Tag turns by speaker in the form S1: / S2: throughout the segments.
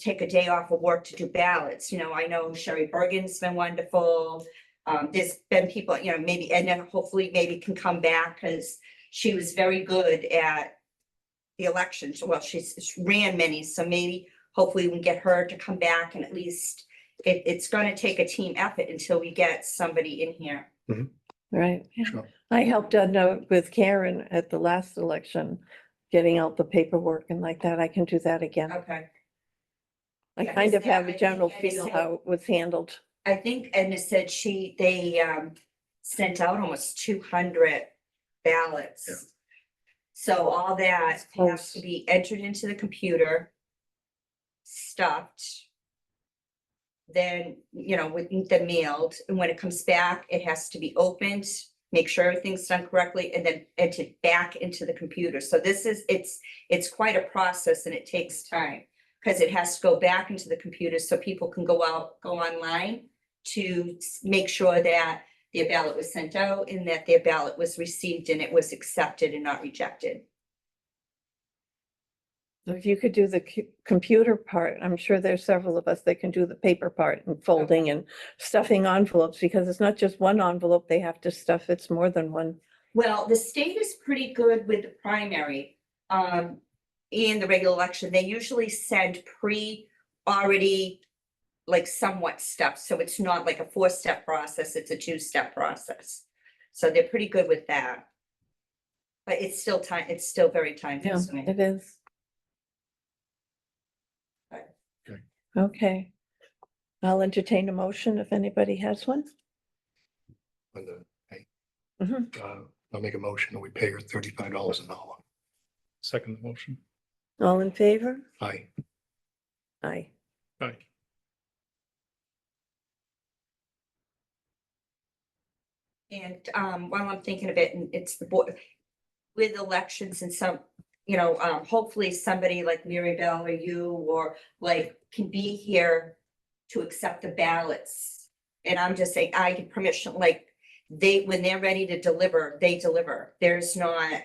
S1: take a day off of work to do ballots, you know, I know Sherry Bergen's been wonderful. Um, there's been people, you know, maybe Edna hopefully maybe can come back, cause she was very good at the elections, well, she's she's ran many, so maybe hopefully we can get her to come back and at least it, it's gonna take a team effort until we get somebody in here.
S2: Right.
S3: Sure.
S2: I helped Edna with Karen at the last election, getting out the paperwork and like that. I can do that again.
S1: Okay.
S2: I
S1: Yeah,
S2: kind of
S1: yeah,
S2: have
S1: I
S2: a
S1: think
S2: general
S1: I
S2: feel
S1: said-
S2: how it was handled.
S1: I think Edna said she, they um sent out almost two hundred
S3: Yeah.
S1: ballots. So all that has
S2: close.
S1: to be entered into the computer. Stuffed. Then, you know, with the mailed, and when it comes back, it has to be opened, make sure everything's done correctly, and then entered back into the computer. So this is, it's, it's quite a process and it takes time. Cause it has to go back into the computer so people can go out, go online to s- make sure that their ballot was sent out and that their ballot was received and it was accepted and not rejected.
S2: If you could do the cu- computer part, I'm sure there's several of us that can do the paper part and folding and stuffing envelopes because it's not just one envelope they have to stuff. It's more than one.
S1: Well, the state is pretty good with the primary, um, and the regular election. They usually send pre already like somewhat stuff, so it's not like a four-step process, it's a two-step process. So they're pretty good with that. But it's still time, it's still very time
S2: Yeah,
S1: consuming.
S2: it is.
S1: Right.
S3: Okay.
S2: Okay. I'll entertain a motion if anybody has one.
S3: on the- I-
S2: Mhm.
S1: Mm-hmm.
S3: uh, I'll make a motion that we pay her thirty-five dollars an hour.
S4: Second motion.
S2: All in favor?
S3: Aye.
S2: Aye.
S4: Aye.
S1: And um, while I'm thinking of it, and it's the board, with elections and some, you know, um, hopefully somebody like Mary Bell or you or like can be here to accept the ballots. And I'm just saying, I get permission, like, they, when they're ready to deliver, they deliver. There's not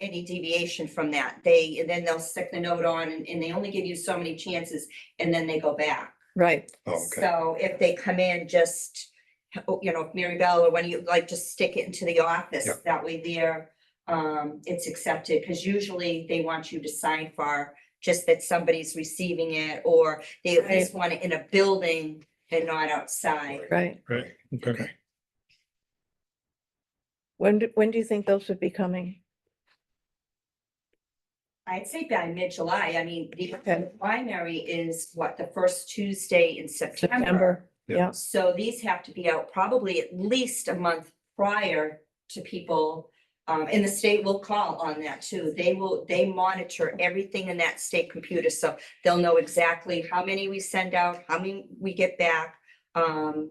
S1: any deviation from that. They, and then they'll stick the note on and, and they only give you so many chances and then they go back.
S2: Right.
S3: Oh, okay.
S1: So if they come in, just, oh, you know, Mary Bell or when you like, just stick it into the office.
S3: Yeah.
S1: That way there, um, it's accepted, because usually they want you to sign for just that somebody's receiving it, or they at least want it in a building and not outside.
S2: Right.
S4: Right. Okay.
S3: Okay.
S2: When, do- when do you think those would be coming?
S1: I'd say by mid-July, I mean, the
S2: Okay.
S1: primary is what, the first Tuesday in September.
S2: September?
S3: Yeah.
S2: Yeah,
S1: So these have to be out probably at least a month prior to people. Um, and the state will call on that too. They will, they monitor everything in that state computer, so they'll know exactly how many we send out, how many we get back. Um.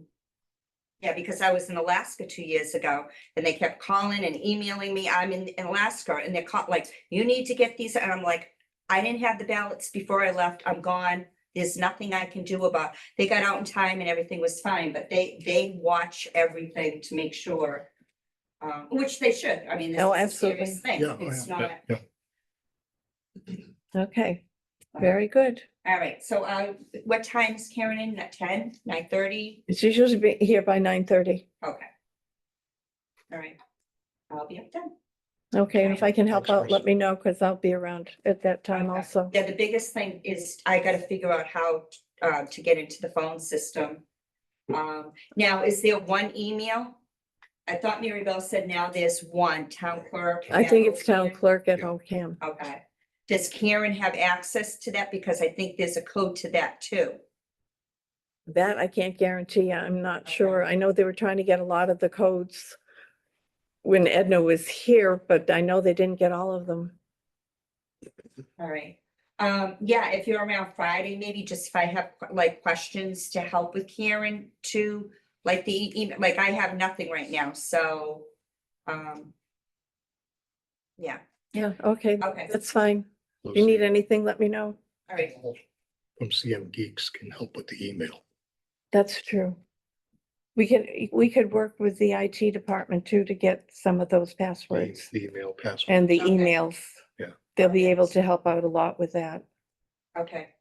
S1: Yeah, because I was in Alaska two years ago and they kept calling and emailing me. I'm in in Alaska and they're caught like, you need to get these. And I'm like, I didn't have the ballots before I left. I'm gone. There's nothing I can do about they got out in time and everything was fine, but they, they watch everything to make sure. Um, which they should, I mean, this
S2: Oh,
S1: is a serious thing,
S3: Yeah, oh,
S1: it's
S3: yeah,
S1: not,
S3: Yeah,
S2: okay,
S1: uh,
S2: very good.
S1: all right, so, uh, what time is Karen in, at ten, nine thirty,
S2: It's usually be here by nine thirty.
S1: okay. All right, I'll be up then,
S2: Okay, and if I can help
S3: Works for
S2: out,
S3: us.
S2: let me know because I'll be around at that time
S1: Okay.
S2: also.
S1: yeah, the biggest thing is I gotta figure out how, uh, to get into the phone system. Um, now, is there one email? I thought Mary Bell said now there's one, town clerk.
S2: I think it's
S1: Carol,
S2: town
S1: Karen.
S2: clerk at
S3: Yeah.
S2: OCAM.
S1: Okay, does Karen have access to that? Because I think there's a code to that too.
S2: That I can't guarantee. I'm not
S1: Okay.
S2: sure. I know they were trying to get a lot of the codes when Edna was here, but I know they didn't get all of them.
S1: All right. Um, yeah, if you're around Friday, maybe just if I have like questions to help with Karen too, like the e-, email, like I have nothing right now, so. Um. Yeah,
S2: Yeah, okay,
S1: okay,
S2: that's fine. If you
S3: Lucy
S2: need anything, let me know.
S1: all right.
S3: From CM Geeks can help with the email.
S2: That's true. We could, we could work with the IT department too to get some of those
S3: the-
S2: passwords
S3: The email password.
S2: and the
S1: Okay.
S2: emails.
S3: Yeah.
S2: They'll be able to help out a lot with that.
S1: Okay,